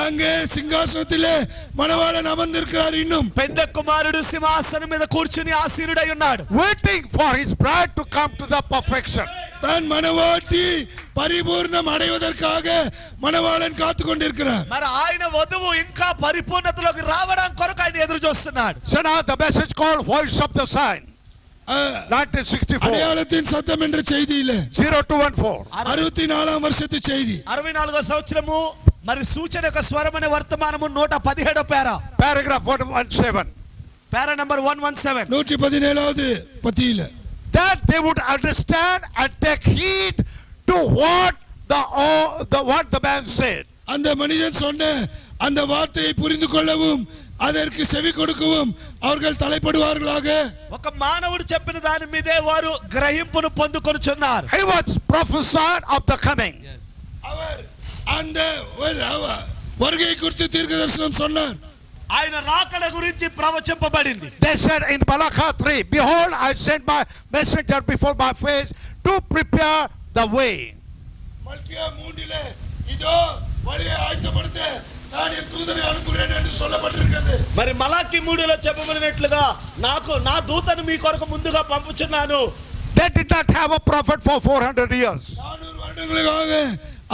அங்கே சிங்காசனத்திலே மணவாளன் அமர்ந்திருக்கிறார் இன்னும் పెండ కుమారుడు సింహాసనం మీద కూర్చుని ఆసీనుడై ఉన్నాడు waiting for his bride to come to the perfection. தன் மணவாட்டி பரிபூர்ணம் அடைவதற்காக மணவாளன் காத்து கொண்டிருக்கிறார் మరి ఆయన వధువు ఇంకా పరిపూర్ణతలోకి రావడం కొరకు ఆయన ఎదురు చూస్తున్నాడు So now the message called Voice of the Sign, அஹ், 1964, அடையாளத்தின் சத்தம் என்ற செய்தியில 0214. அறுபத்தி நாலாம் வருஷத்து செய்தி అరవై నాలుగో సంవత్సరము మరి సూచన యొక్క స్వరం అనే వర్తమానము నూట పదిహేడో పేర Paragraph 117. Para number one one seven நூற்றி பதினேழாவது பத்தியில That they would understand and take heed to what the, oh, the, what the man said. அந்த மனிதன் சொன்ன அந்த வார்த்தையை புரிந்து கொள்ளவும் அதற்கு செவி கொடுக்கவும் அவர்கள் தலைப்படுவார்களாக ఒక మానవుడు చెప్పిన దాని మీదే వారు గ్రహింపును పొందుకొనుచున్నారు He was prophesied of the coming. அவர் அந்த ஒரு- அவ- வருகை குறித்து தீர்க்க தரிசனம் சொன்னார் ఆయన రాకడ గురించి ప్రవచింపబడింది They said in Balaka 3, Behold, I sent my messenger before my face to prepare the way. மல்கியா மூன்றிலே இதோ வழியை ஆயத்தப்படுத்த நான் என் தூதனை அனுப்புகிறேன் என்று சொல்லப்பட்டிருக்கிறது మరి మలాకి మూడులో చెప్పబడినట్లుగా నాకు నా దూతను మీ కొరకు ముందుగా పంపుచున్నాను They did not have a prophet for 400 years. நானூறு வருடங்களுக்காக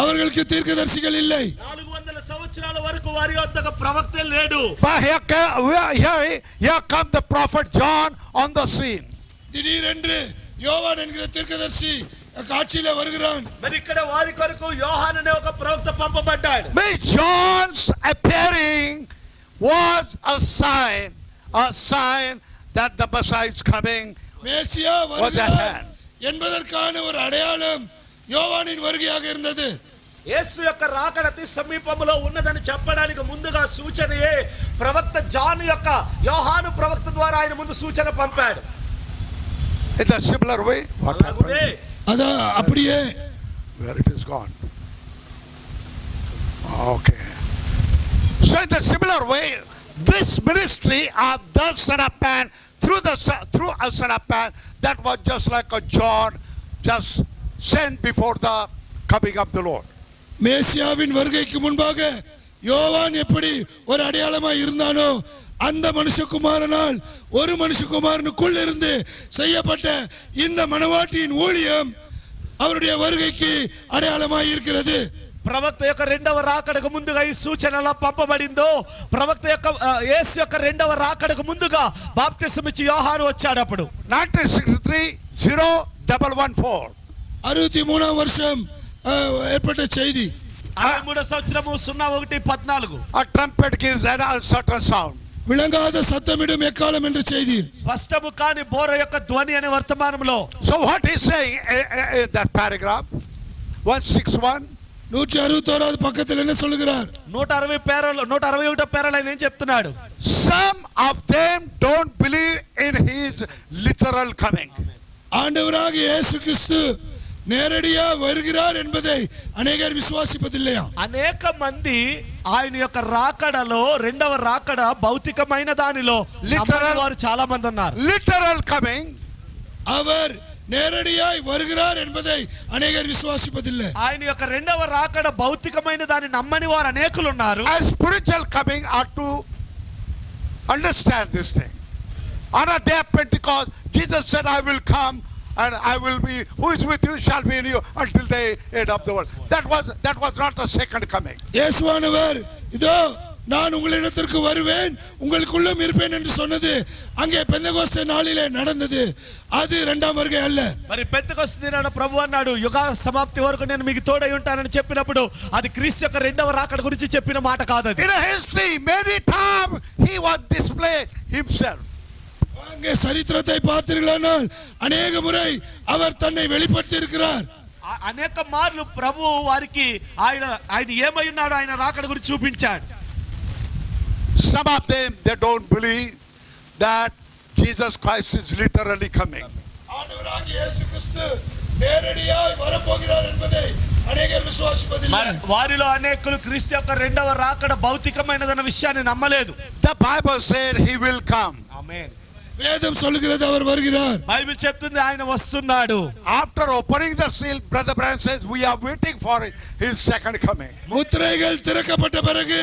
அவர்களுக்கு தீர்க்கதரிசிகள் இல்லை నాలుగు వందల సంవత్సరాల వరకు వారి వద్ద ఒక ప్రవక్త లేడు But here, ca- where- here, here come the prophet John on the scene. திடீரென்று யோவான் என்கிற தீர்க்கதரிசி காட்சியில வருகிறான் మరి ఇక్కడ వారి కొరకు యోహాన్ అనే ఒక ప్రవక్త పంపబడ్డాడు Miss John's appearing was a sign, a sign that the Messiah is coming. மேசியா வருகிறார் என்பதற்கான ஒரு அடையாளம் யோவானின் வருகையாக இருந்தது యేసు యొక్క రాకడ అతి సమీపంలో ఉన్నదని చెప్పడానికి ముందుగా సూచనయే ప్రవక్త జాన్ యొక్క యోహాను ప్రవక్త ద్వారా ఆయన ముందు సూచన పంపాడు In a similar way, what అలాగునే happened? அதான் அப்படியே Where it is gone. Okay. So in the similar way, this ministry of the Son of Man through the Son- through a Son of Man that was just like a John, just sent before the coming of the Lord. மேசியாவின் வருகைக்கு முன்பாக யோவான் எப்படி ஒரு அடையாளமாய் இருந்தானோ அந்த மனுஷகுமாரனால் ஒரு மனுஷகுமாரனுக்குள் இருந்து செய்யப்பட்ட இந்த மணவாட்டியின் ஊழியம் அவருடைய வருகைக்கு அடையாளமாய் இருக்கிறது ప్రవక్త యొక్క రెండవ రాకడకు ముందుగా ఈ సూచన ఎలా పంపబడిందో ప్రవక్త యొక్క ఆ, యేసు యొక్క రెండవ రాకడకు ముందుగా బాప్తిసం ఇచ్చి యోహాను వచ్చాడు అప్పుడు 1963 0114. அறுபத்தி மூணாம் வருஷம் அஹ், ஏற்பட்ட செய்தி అరవై మూడో సంవత్సరము సున్నా ఒకటి పద్నాలుగు A trumpet gives an uncertain sound. விளங்காத சத்தமிடும் எக்காலம் என்ற செய்தியில் స్పష్టము కాని బోర యొక్క ధ్వని అనే వర్తమానంలో So what he's saying eh, eh, eh, in that paragraph, 161, நூற்றி அறுபத்தோராவது பக்கத்தில் என்ன சொல்லுகிறார் నూట అరవై పేరలు నూట అరవై ఒకటో పేరలు ఆయన ఏం చెప్తున్నాడు some of them don't believe in his literal coming. ஆண்டவராக இயேசு கிறிஸ்து நேரடியா வருகிறார் என்பதை அநேகர் விசுவாசிப்பதில்லையா అనేక మంది ఆయన యొక్క రాకడలో రెండవ రాకడ భౌతికమైన దానిలో Literal- నమ్మని వారు చాలా మంది ఉన్నారు Literal coming, அவர் நேரடியாய் வருகிறார் என்பதை அநேகர் விசுவாசிப்பதில்லை ఆయన యొక్క రెండవ రాకడ భౌతికమైన దాన్ని నమ్మని వారు అనేకులు ఉన్నారు and spiritual coming are to understand this thing. On a day of Pentecost, Jesus said, I will come and I will be, who is with you shall be in you until the end of the world. That was, that was not a second coming. இயேசுவானவர் இதோ நான் உங்களிடத்திற்கு வருவேன் உங்களுக்குள்ளும் இருப்பேன் என்று சொன்னது அங்கே பெந்தகோஸ்தே நாளிலே நடந்தது அது இரண்டாம் வருகை அல்ல మరి పెద్దకొస్తున్నాడు ప్రభు అన్నాడు యుగ సమాప్తి వరకు నేను మీకు తోడై ఉంటానని చెప్పినప్పుడు అది క్రీస్తు యొక్క రెండవ రాకడ గురించి చెప్పిన మాట కాదు అది In a history, many times he was displayed himself. அங்கே சரித்திரத்தை பார்த்தீர்களானால் அநேக முறை அவர் தன்னை வெளிப்படுத்தி இருக்கிறார் ఆ- అనేక మార్లు ప్రభు వారికి ఆయన ఆయన ఏమై ఉన్నాడు ఆయన రాకడ గురించి చూపించాడు Some of them, they don't believe that Jesus Christ is literally coming. ஆண்டவராகிய இயேசு கிறிஸ்து நேரடியாய் வரப்போகிறார் என்பதை அநேகர் మరి விசுவாசிப்பதில்லை వారిలో అనేకులు క్రీస్తు యొక్క రెండవ రాకడ భౌతికమైనదన్న విషయాన్ని నమ్మలేదు The Bible said he will come. வேதம் சொல்லுகிறது அவர் வருகிறார் బైబిల్ చెప్తుంది ఆయన వస్తున్నాడు After opening the seal, Brother Brian says, We are waiting for his second coming. முத்திரைகள் திறக்கப்பட்ட பிறகு